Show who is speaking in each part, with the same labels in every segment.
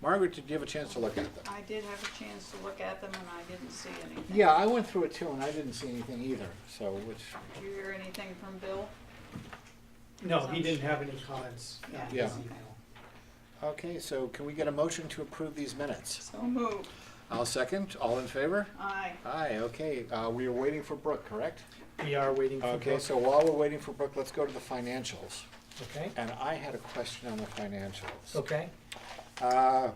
Speaker 1: Margaret, did you have a chance to look at them?
Speaker 2: I did have a chance to look at them and I didn't see anything.
Speaker 1: Yeah, I went through it too, and I didn't see anything either, so which,
Speaker 2: Did you hear anything from Bill?
Speaker 3: No, he didn't have any comments. uh,
Speaker 2: Yeah.
Speaker 1: Yeah.
Speaker 3: this email.
Speaker 1: okay, so can we get a motion to approve these minutes?
Speaker 2: So moved.
Speaker 1: I'll second, all in favor?
Speaker 2: Aye.
Speaker 1: Aye, okay, uh, we are waiting for Brooke, correct?
Speaker 3: We are waiting for
Speaker 1: Okay,
Speaker 3: Brooke,
Speaker 1: so while we're waiting for Brooke, let's go to the financials.
Speaker 3: okay?
Speaker 1: And I had a question on the financials.
Speaker 3: Okay,
Speaker 1: Uh,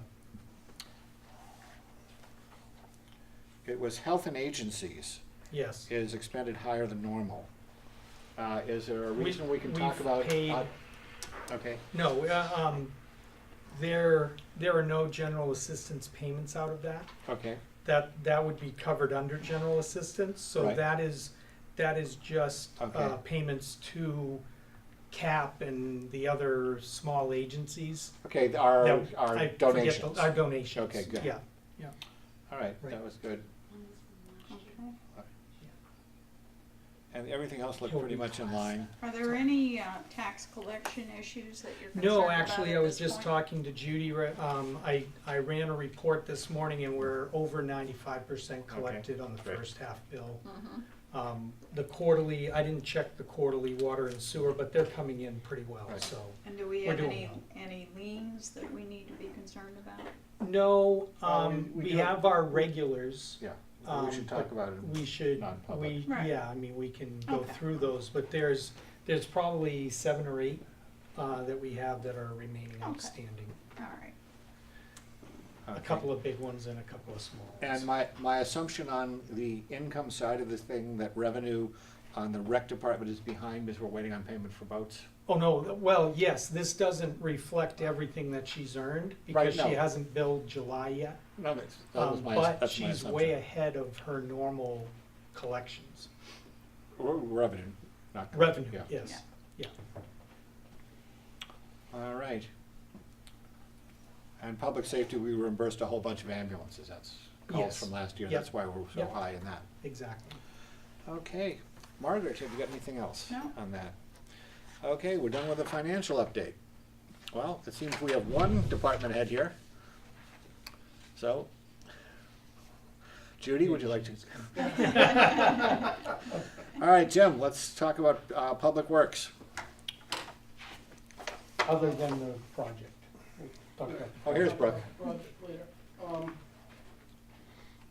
Speaker 1: It was health and agencies
Speaker 3: yes.
Speaker 1: is expended higher than normal. Uh, Is there a
Speaker 3: We-
Speaker 1: reason we can
Speaker 3: we've
Speaker 1: talk about?
Speaker 3: paid-
Speaker 1: uh, Okay,
Speaker 3: No, uh, um, there, there are no general assistance payments out of that.
Speaker 1: okay,
Speaker 3: That, that would be covered under general assistance, so
Speaker 1: Right.
Speaker 3: that is, that is just, uh,
Speaker 1: Okay.
Speaker 3: payments to CAP and the other small agencies.
Speaker 1: okay, th- our,
Speaker 3: that- I
Speaker 1: our
Speaker 3: forget the-
Speaker 1: donations.
Speaker 3: Our
Speaker 1: All
Speaker 3: donations.
Speaker 1: Okay, good.
Speaker 3: Yeah,
Speaker 1: right,
Speaker 3: Right.
Speaker 1: that was good.
Speaker 2: Okay.
Speaker 1: And everything else looked
Speaker 3: It'll
Speaker 1: pretty
Speaker 3: be
Speaker 1: much in
Speaker 3: class.
Speaker 1: line.
Speaker 2: Are there any uh, tax collection issues that you're concerned
Speaker 3: No,
Speaker 2: about
Speaker 3: actually,
Speaker 2: at
Speaker 3: I was
Speaker 2: this
Speaker 3: just
Speaker 2: point?
Speaker 3: talking to Judy, re- um, I, I ran a report this morning and we're over ninety-five percent collected on the
Speaker 1: great.
Speaker 3: first half bill.
Speaker 2: Mhm.
Speaker 3: Um, the quarterly, I didn't check the quarterly water and sewer, but they're coming in pretty well,
Speaker 1: Right.
Speaker 3: so.
Speaker 2: And do we
Speaker 3: We're
Speaker 2: have
Speaker 3: doing
Speaker 2: any,
Speaker 3: well.
Speaker 2: any liens that we need to be concerned about?
Speaker 3: No,
Speaker 1: Well, we-
Speaker 3: um,
Speaker 1: we
Speaker 3: we
Speaker 1: do-
Speaker 3: have our regulars,
Speaker 1: Yeah, we
Speaker 3: Um,
Speaker 1: should talk
Speaker 3: but
Speaker 1: about it.
Speaker 3: we should, we,
Speaker 1: Non-public.
Speaker 2: Right.
Speaker 3: yeah, I mean, we can go
Speaker 2: Okay.
Speaker 3: through those, but there's, there's probably seven or eight, uh, that we have that are remaining
Speaker 2: Okay.
Speaker 3: outstanding.
Speaker 2: All right.
Speaker 3: A
Speaker 1: Okay.
Speaker 3: couple of big ones and a couple of small ones.
Speaker 1: And my, my assumption on the income side of this thing, that revenue on the rec department is behind because we're waiting on payment for boats?
Speaker 3: Oh, no, well, yes, this doesn't reflect everything that she's earned because
Speaker 1: Right,
Speaker 3: she
Speaker 1: no.
Speaker 3: hasn't billed July yet.
Speaker 1: No, that's, that was
Speaker 3: Um,
Speaker 1: my,
Speaker 3: But
Speaker 1: that's my
Speaker 3: she's
Speaker 1: assumption.
Speaker 3: way ahead of her normal collections,
Speaker 1: Re- Revenue, not.
Speaker 3: revenue,
Speaker 1: Yeah,
Speaker 3: yes.
Speaker 1: all right. And public safety, we reimbursed a whole bunch of ambulances, that's calls
Speaker 3: Yes.
Speaker 1: from last year,
Speaker 3: Yep.
Speaker 1: that's why we're so
Speaker 3: Yep.
Speaker 1: high in that.
Speaker 3: Exactly.
Speaker 1: Okay, Margaret, have you got anything else
Speaker 2: No.
Speaker 1: on that? Okay, we're done with the financial update. Well, it seems we have one department head here. So, Judy, would you like to? All right, Jim, let's talk about uh, Public Works.
Speaker 3: Other than the project. We'll talk about-
Speaker 1: Oh, here's Brooke.
Speaker 4: Project later. Um,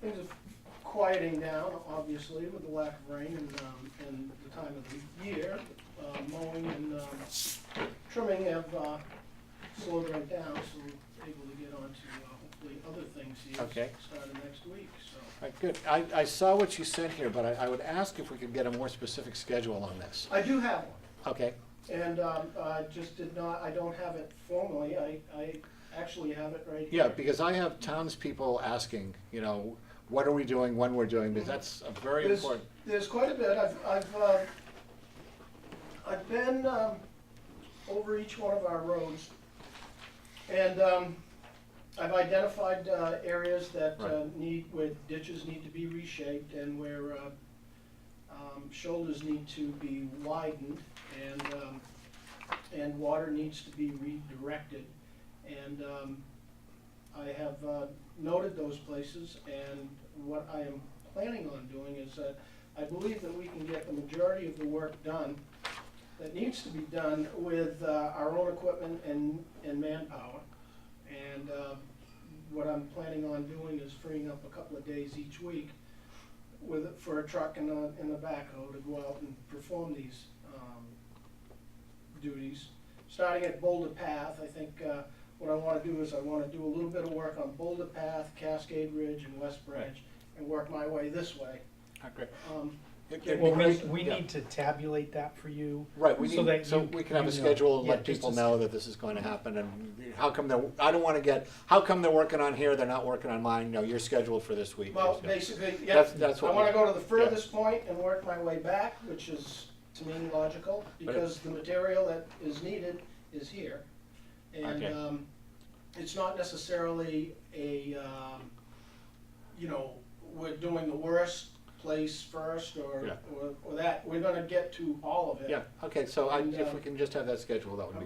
Speaker 4: Things are quieting down, obviously, with the lack of rain and, um, and the time of the year. Uh, Mowing and um, trimming have uh, slowed right down, so we're able to get on to uh, hopefully other things here.
Speaker 1: Okay.
Speaker 4: Starting next week, so.
Speaker 1: All right, good. I, I saw what you sent here, but I, I would ask if we could get a more specific schedule on this.
Speaker 4: I do have one.
Speaker 1: Okay,
Speaker 4: And um, I just did not, I don't have it formally. I, I actually have it right here.
Speaker 1: yeah, because I have townspeople asking, you know, what are we doing, when we're doing, because that's a very
Speaker 4: There's-
Speaker 1: important.
Speaker 4: There's quite a bit. I've, I've, uh, I've been, um, over each one of our roads. And, um, I've identified, uh, areas that, uh,
Speaker 1: Right.
Speaker 4: need, where ditches need to be reshaped and where, uh, um, shoulders need to be widened and, um, and water needs to be redirected. And, um, I have, uh, noted those places and what I am planning on doing is that I believe that we can get the majority of the work done that needs to be done with uh, our own equipment and, and manpower. And uh, what I'm planning on doing is freeing up a couple of days each week with, for a truck and a, and a backhoe to go out and perform these um, duties. Starting at Boulder Path, I think uh, what I want to do is I want to do a little bit of work on Boulder Path, Cascade Ridge, and West Branch, and work my way this way. Um,
Speaker 1: It'd be
Speaker 3: Well, we,
Speaker 1: great-
Speaker 3: we
Speaker 1: yeah.
Speaker 3: need to tabulate that for you.
Speaker 1: Right, we
Speaker 3: so
Speaker 1: need,
Speaker 3: that
Speaker 1: so
Speaker 3: you-
Speaker 1: we can have
Speaker 3: you
Speaker 1: a
Speaker 3: know.
Speaker 1: schedule and
Speaker 3: Yeah,
Speaker 1: let
Speaker 3: just
Speaker 1: people
Speaker 3: as-
Speaker 1: know that this is going to happen and how come they're, I don't want to get, how come they're working on here, they're not working on mine, no, you're scheduled for this week.
Speaker 4: Well,
Speaker 1: Yeah.
Speaker 4: basically, yeah,
Speaker 1: That's- that's
Speaker 4: I
Speaker 1: what
Speaker 4: wanna
Speaker 1: we-
Speaker 4: go to the furthest point and work my way back, which is, to me, logical,
Speaker 1: But it-
Speaker 4: because the material that is needed is here. And,
Speaker 1: Okay.
Speaker 4: um, it's not necessarily a, um, you know, we're doing the worst place first, or,
Speaker 1: Yeah.
Speaker 4: or, or that, we're gonna get to all of it.
Speaker 1: Yeah, okay, so I,
Speaker 4: And,
Speaker 1: if
Speaker 4: uh,
Speaker 1: we can just have that schedule, that would be